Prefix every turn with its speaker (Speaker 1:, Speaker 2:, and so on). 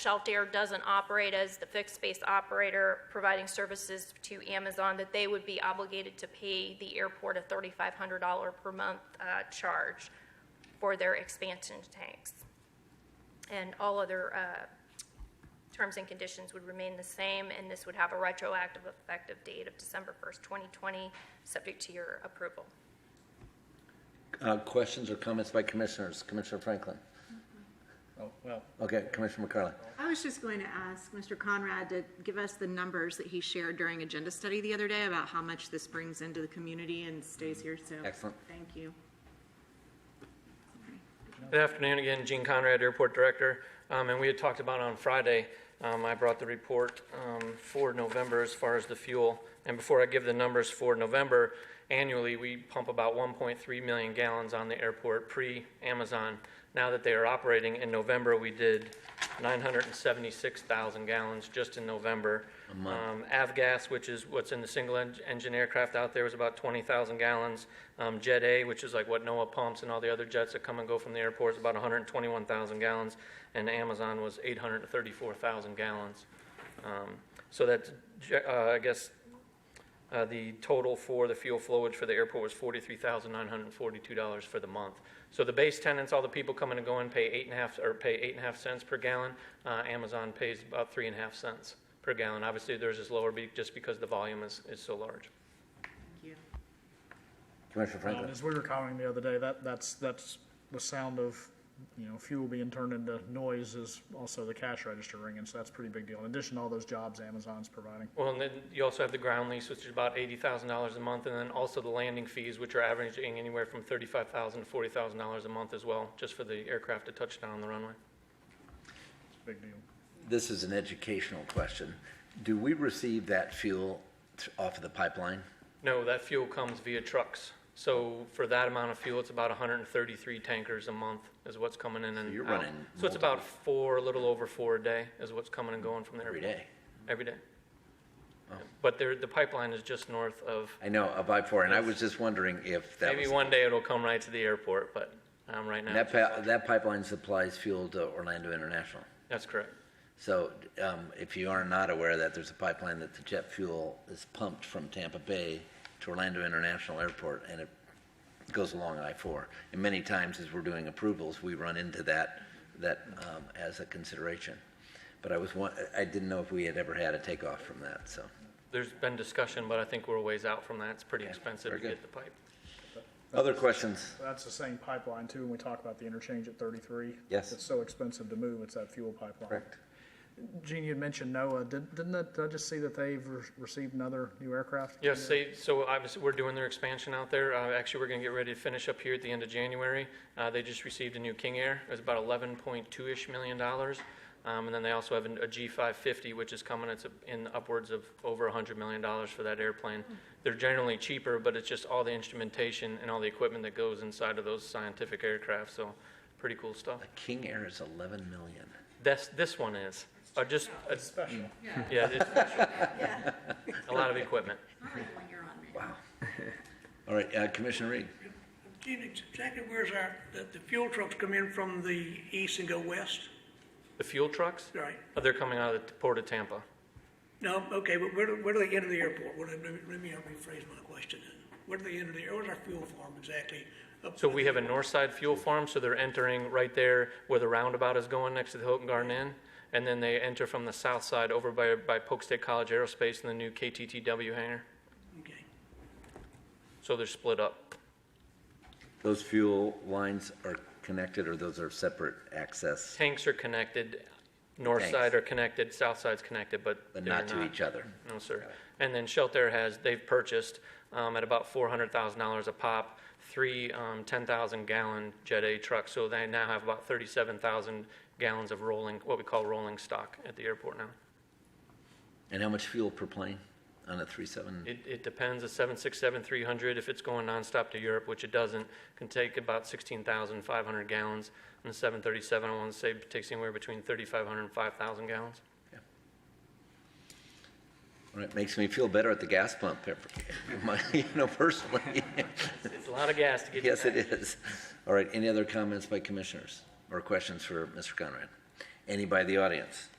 Speaker 1: Shelter doesn't operate as the fixed base operator providing services to Amazon, that they would be obligated to pay the airport a $3,500 per month uh, charge for their expansion tanks. And all other uh, terms and conditions would remain the same, and this would have a retroactive effective date of December 1st, 2020, subject to your approval.
Speaker 2: Uh, Questions or comments by commissioners? Commissioner Franklin?
Speaker 3: Oh, well,
Speaker 2: Okay, Commissioner McCarley.
Speaker 4: I was just going to ask Mr. Conrad to give us the numbers that he shared during agenda study the other day about how much this brings into the community and stays here, so.
Speaker 2: Excellent.
Speaker 4: Thank you.
Speaker 5: Good afternoon again, Gene Conrad, Airport Director. Um, And we had talked about on Friday, um, I brought the report um, for November as far as the fuel. And before I give the numbers for November, annually, we pump about 1.3 million gallons on the airport pre-Amazon. Now that they are operating, in November, we did 976,000 gallons just in November. Um, Avgas, which is what's in the single-engine aircraft out there, was about 20,000 gallons. Um, Jet A, which is like what NOAA pumps and all the other jets that come and go from the airport, is about 121,000 gallons. And Amazon was 834,000 gallons. Um, So that's, je- uh, I guess, uh, The total for the fuel flowage for the airport was $43,942 for the month. So the base tenants, all the people coming and going, pay eight and a half, or pay eight and a half cents per gallon. Uh, Amazon pays about three and a half cents per gallon. Obviously, theirs is lower be- just because the volume is, is so large.
Speaker 4: Thank you.
Speaker 2: Commissioner
Speaker 3: um,
Speaker 2: Franklin.
Speaker 3: as we were commenting the other day, that, that's, that's the sound of, you know, fuel being turned into noise is also the cash register ringing, so that's a pretty big deal. In addition to all those jobs Amazon's providing.
Speaker 5: Well, and then you also have the ground lease, which is about $80,000 a month, and then also the landing fees, which are averaging anywhere from $35,000 to $40,000 a month as well, just for the aircraft to touch down on the runway.
Speaker 3: It's a big deal.
Speaker 2: This is an educational question. Do we receive that fuel th- off of the pipeline?
Speaker 5: No, that fuel comes via trucks. So for that amount of fuel, it's about 133 tankers a month is what's coming in and
Speaker 2: you're
Speaker 5: out.
Speaker 2: running
Speaker 5: So it's about four, a little over four a day is what's coming and going from there.
Speaker 2: Every day. Oh.
Speaker 5: Every day. But there, the pipeline is just north of,
Speaker 2: I know, of I-4, and I was just wondering if that
Speaker 5: maybe
Speaker 2: was...
Speaker 5: one day it'll come right to the airport, but um, right now,
Speaker 2: That pa- that pipeline supplies fuel to Orlando International.
Speaker 5: that's correct.
Speaker 2: So um, if you are not aware of that, there's a pipeline that the jet fuel is pumped from Tampa Bay to Orlando International Airport, and it goes along I-4. And many times, as we're doing approvals, we run into that, that um, as a consideration. But I was, won- I didn't know if we had ever had a takeoff from that, so.
Speaker 5: There's been discussion, but I think we're a ways out from that. It's pretty expensive to
Speaker 2: very good.
Speaker 5: get the pipe.
Speaker 2: Other questions?
Speaker 3: That's the same pipeline too, when we talk about the interchange at thirty-three.
Speaker 2: Yes.
Speaker 3: It's so expensive to move, it's that fuel pipeline. Gene, you had mentioned NOAA. Did- Didn't, that- did I just see that they've re- received another new aircraft?
Speaker 5: Yes, they, so obviously, we're doing their expansion out there. Uh, Actually, we're going to get ready to finish up here at the end of January. Uh, They just received a new King Air. It was about 11.2-ish million dollars. Um, And then they also have an- a G550, which is coming, it's in upwards of over $100 million for that airplane. They're generally cheaper, but it's just all the instrumentation and all the equipment that goes inside of those scientific aircraft, so pretty cool stuff.
Speaker 2: A King Air is 11 million.
Speaker 5: This, this one is, Uh, just, uh,
Speaker 3: Special.
Speaker 5: yeah, it's special. A lot of equipment.
Speaker 2: All right, uh, Commissioner Reed?
Speaker 6: Gene, ex- exactly where's our, the, the fuel trucks come in from the east and go west,
Speaker 5: The fuel trucks?
Speaker 6: right?
Speaker 5: Uh, They're coming out of the Port of Tampa.
Speaker 6: No, okay, but where, do- where do they enter the airport? What, let me, let me rephrase my question then. Where do they enter the, where's our fuel farm exactly? Up-
Speaker 5: So we have a north side fuel farm, so they're entering right there where the roundabout is going next to the Hilton Garden Inn. And then they enter from the south side over by, by Polk State College Aerospace and the new KTTW hangar.
Speaker 6: Okay.
Speaker 5: So they're split up.
Speaker 2: Those fuel lines are connected, or those are separate access,
Speaker 5: Tanks are connected, north
Speaker 2: Tanks.
Speaker 5: side are connected, south side's connected, but
Speaker 2: but
Speaker 5: they're
Speaker 2: not to each other?
Speaker 5: No, sir. And then Shelter has, they've purchased um, at about $400,000 a pop, three um, 10,000-gallon Jet A trucks. So they now have about 37,000 gallons of rolling, what we call rolling stock at the airport now.
Speaker 2: And how much fuel per plane on a 37?
Speaker 5: It, it depends, a 767 300, if it's going nonstop to Europe, which it doesn't, can take about 16,500 gallons. And the 737, I want to say, takes anywhere between 3,500 and 5,000 gallons.
Speaker 2: Well, It makes me feel better at the gas pump, you know, personally.
Speaker 5: It's a lot of gas to get.
Speaker 2: Yes, it is. All right, any other comments by commissioners or questions for Mr. Conrad? Any by the audience?